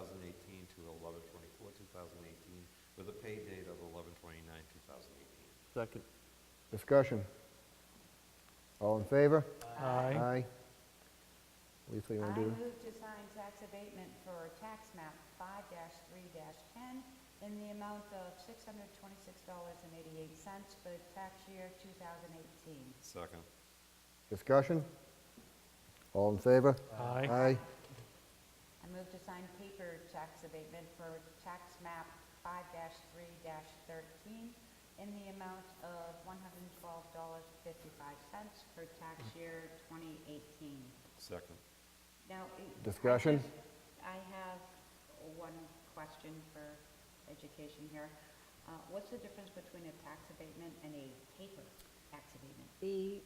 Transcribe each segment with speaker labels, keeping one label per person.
Speaker 1: 2018 to 11/24/2018, with a pay date of 11/29/2018.
Speaker 2: Second.
Speaker 3: Discussion. All in favor?
Speaker 2: Aye.
Speaker 3: Lisa, you
Speaker 4: I
Speaker 3: want to do?
Speaker 4: move to sign tax abatement for tax map five three ten in the amount of six hundred twenty-six dollars and eighty-eight cents for the tax year two thousand eighteen.
Speaker 1: Second.
Speaker 3: Discussion. All in favor?
Speaker 2: Aye.
Speaker 3: Aye.
Speaker 4: I move to sign paper tax abatement for tax map five three thirteen in the amount of one hundred and twelve dollars fifty-five cents for tax year twenty eighteen.
Speaker 1: Second.
Speaker 4: Now. it-
Speaker 3: Discussion?
Speaker 4: I have one question for education here. Uh, What's the difference between a tax abatement and a paper tax abatement?
Speaker 5: The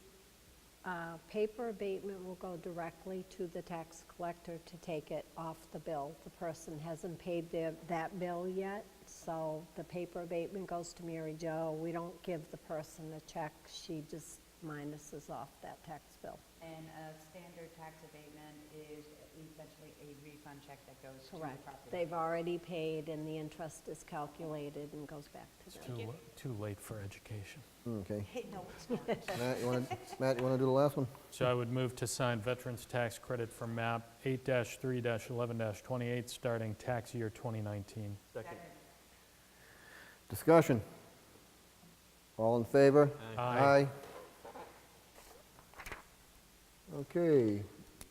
Speaker 5: uh, paper abatement will go directly to the tax collector to take it off the bill. The person hasn't paid their, that bill yet, so the paper abatement goes to Mary Jo. We don't give the person a check, she just minuses off that tax bill.
Speaker 4: And a standard tax abatement is essentially a refund check that goes to the
Speaker 5: Correct.
Speaker 4: property.
Speaker 5: They've already paid, and the interest is calculated and goes back to them.
Speaker 6: Too, too late for education.
Speaker 3: Okay.
Speaker 4: No, it's not.
Speaker 3: Matt, you want to, Matt, you want to do the last one?
Speaker 6: So I would move to sign Veterans Tax Credit for MAP 8-3-11-28, starting tax year 2019.
Speaker 2: Second.
Speaker 3: Discussion. All in favor?
Speaker 6: Aye.
Speaker 3: Okay.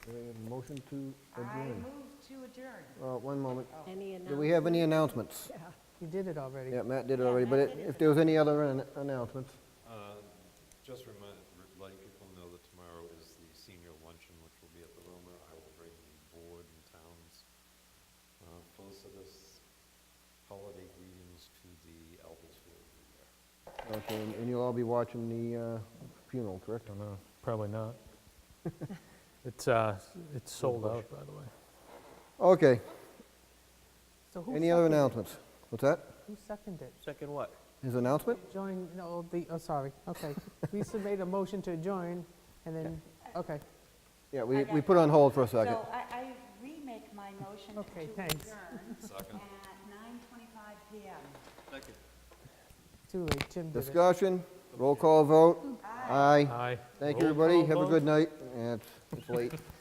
Speaker 3: Do we have a Motion to
Speaker 4: I
Speaker 3: adjourn.
Speaker 4: move to adjourn.
Speaker 3: Uh, One moment.
Speaker 5: Any
Speaker 3: Do we have any announcements?
Speaker 7: You did it already.
Speaker 3: Yeah, Matt did it already, but it- if there was any other an- announcements?
Speaker 1: Uh, Just remind, re- letting people know that tomorrow is the senior luncheon, which will be at the Roma. I will bring the board and town's uh, felicitous holiday greetings to the elders who will be there.
Speaker 3: Okay, and- and you'll all be watching the uh, funeral, correct?
Speaker 6: Don't know, probably not. It's, uh, it's sold out, by the way.
Speaker 3: Okay.
Speaker 7: So who
Speaker 3: Any other
Speaker 7: seconded-
Speaker 3: announcements? What's that?
Speaker 7: Who seconded?
Speaker 2: Second what?
Speaker 3: His announcement?
Speaker 7: Join, no, the, oh, sorry, okay. Lisa made a motion to adjourn, and then, okay,
Speaker 3: Yeah, we,
Speaker 4: I
Speaker 3: we
Speaker 4: got
Speaker 3: put it on hold for a second.
Speaker 4: So I, I remake my motion to
Speaker 7: Okay,
Speaker 4: adjourn
Speaker 7: thanks.
Speaker 1: Second.
Speaker 4: at nine twenty-five PM.
Speaker 7: too late, Jim did it.
Speaker 3: Discussion, roll call vote. Aye.
Speaker 6: Aye.
Speaker 3: Thank you, everybody. Have a good night. Yeah, it's- it's late.